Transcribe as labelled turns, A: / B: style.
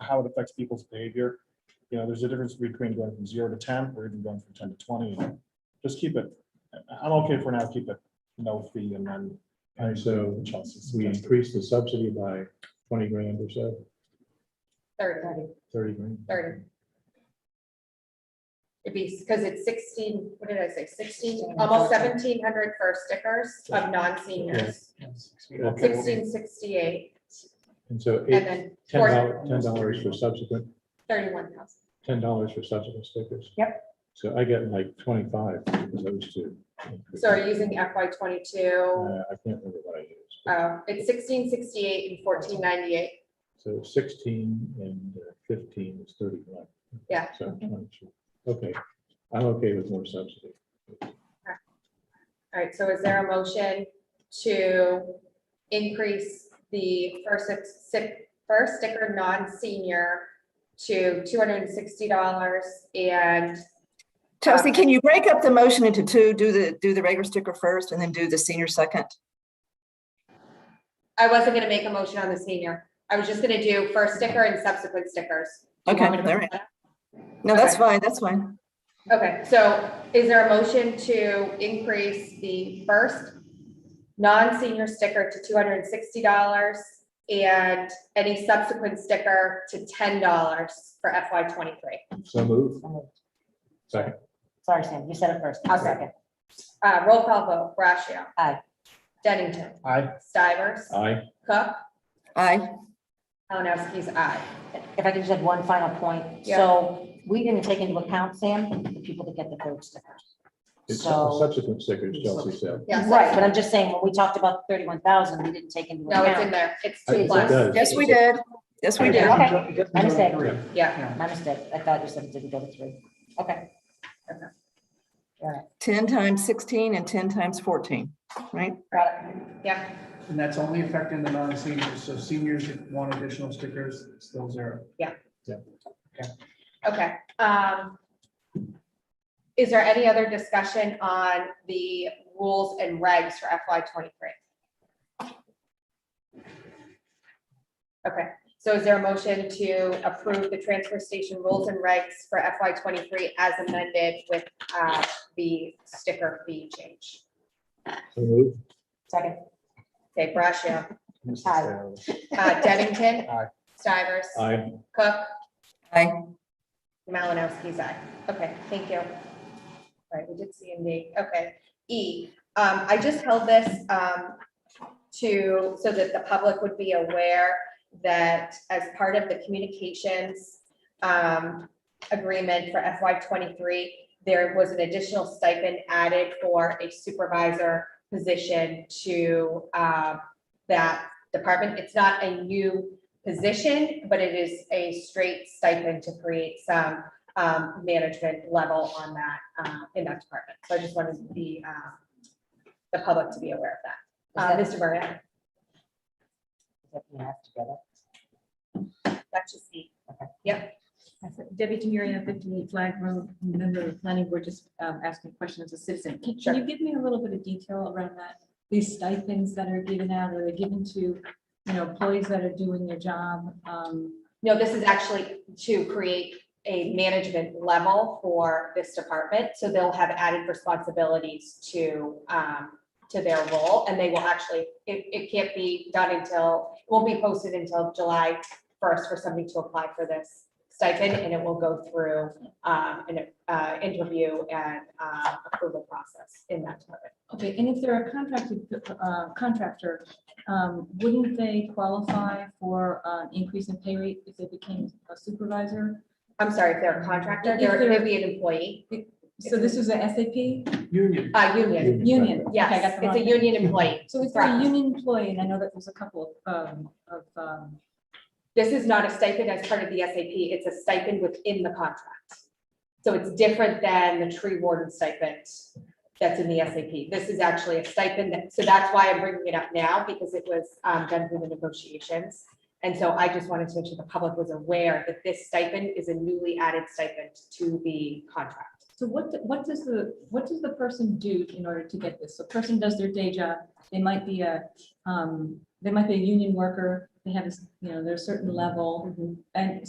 A: how it affects people's behavior. You know, there's a difference between going from zero to ten or even going from ten to twenty. Just keep it, I- I'm okay for now, keep it no fee and then.
B: And so
A: Chelsea's
B: we
A: suggested.
B: increased the subsidy by twenty grand or so,
C: thirty,
B: thirty grand.
C: thirty. It'd be, because it's sixteen, what did I say, sixteen, almost seventeen hundred for stickers of non-seniors.
A: Okay,
C: Sixteen sixty-eight,
B: And so
C: and
B: eight,
C: then
B: ten
C: four,
B: dollars, ten dollars for subsequent,
C: thirty-one thousand.
B: ten dollars for subsequent stickers. Yep. So I get like twenty-five for those two.
C: So are you using FY twenty-two?
B: Uh, I can't remember what I used. but-
C: Uh, it's sixteen sixty-eight and fourteen ninety-eight.
B: So sixteen and uh, fifteen is thirty-one.
C: Yeah.
B: So 22. Okay, I'm okay with more subsidy.
C: All right, so is there a motion to increase the first six, six, first sticker non-senior to two hundred and sixty dollars and
D: Chelsea, can you break up the motion into two? Do the, do the regular sticker first and then do the senior second?
C: I wasn't gonna make a motion on the senior. I was just gonna do first sticker and subsequent stickers. Do you
D: Okay,
C: want me to-
D: all right. No, that's
C: Okay.
D: fine, that's fine.
C: Okay, so is there a motion to increase the first non-senior sticker to two hundred and sixty dollars and any subsequent sticker to ten dollars for FY twenty-three?
B: So move. Second.
E: Sorry, Sam, you said it first. I'll second.
C: Uh, roll call vote, Brashio.
E: Aye.
C: Dennington.
A: Aye.
C: Stivers.
B: Aye.
C: Cook.
D: Aye,
C: Malinowski's aye.
E: If I could just add one final point.
C: Yeah.
E: So we didn't take into account, Sam, the people that get the third sticker.
B: It's
E: So-
B: subsequent stickers, Chelsea said.
C: Yes.
E: Right, but I'm just saying, when we talked about thirty-one thousand, we didn't take into
C: No, it's in
E: account.
C: there. It's
B: I-
C: two
B: it
C: plus.
B: does.
D: yes, we did, yes, we did.
E: Okay, I understand.
C: Yeah.
E: My mistake. I thought you said it didn't go to three. Okay. Okay. All right,
D: Ten times sixteen and ten times fourteen, right?
E: got it.
C: Yeah.
F: And that's only affecting the non-seniors, so seniors that want additional stickers, it's still zero.
C: Okay. um, Is there any other discussion on the rules and regs for FY twenty-three? Okay, so is there a motion to approve the transfer station rules and regs for FY twenty-three as amended with uh, the sticker fee change?
B: So move.
E: Second.
C: Okay, Brashia,
E: Aye.
C: uh, Dennington.
A: Aye.
C: Stivers.
B: Aye.
C: Cook.
D: Aye.
C: Malinowski's aye. Okay, thank you. All right, we did C and D. Okay. E, um, I just held this, um, to, so that the public would be aware that as part of the communications, um, agreement for FY twenty-three, there was an additional stipend added for a supervisor position to, uh, that department. It's not a new position, but it is a straight stipend to create some um, management level on that, uh, in that department. So I just wanted the, um, the public to be aware of that. Uh, Mr. Moran,
E: You have to get it.
C: that's just me.
G: Debbie Temiria, 58 Flag Road, member of the planning board, just um, asking questions as a citizen. Can can you give me a little bit of detail around that? These stipends that are given out, are they given to, you know, employees that are doing their job? um,
C: No, this is actually to create a management level for this department. So they'll have added responsibilities to, um, to their role and they will actually, it, it can't be done until, it won't be posted until July first for somebody to apply for this stipend and it will go through, um, an, uh, interview and, uh, approval process in that department.
G: Okay, and if they're a contracted uh, contractor, um, wouldn't they qualify for an increase in pay rate if they became a supervisor?
C: I'm sorry, if they're a contractor,
G: If
C: they're,
G: they're-
C: they'd be an employee,
G: So this is a SAP
F: Union,
C: uh, union.
G: union? Okay, I
C: Yes,
G: got the
C: it's a
G: wrong-
C: union employee.
G: So if they're a
C: Correct.
G: union employee, and I know that there's a couple of, um, of, um,
C: This is not a stipend as part of the SAP, it's a stipend within the contract. So it's different than the tree warden stipend that's in the SAP. This is actually a stipend, that- so that's why I'm bringing it up now, because it was um, done through the negotiations. And so I just wanted to make sure the public was aware that this stipend is a newly added stipend to the contract.
G: so what, do- what does the, what does the person do in order to get this? So person does their day job, they might be a, um, they might be a union worker, they have, a s- you know, they're a certain level, and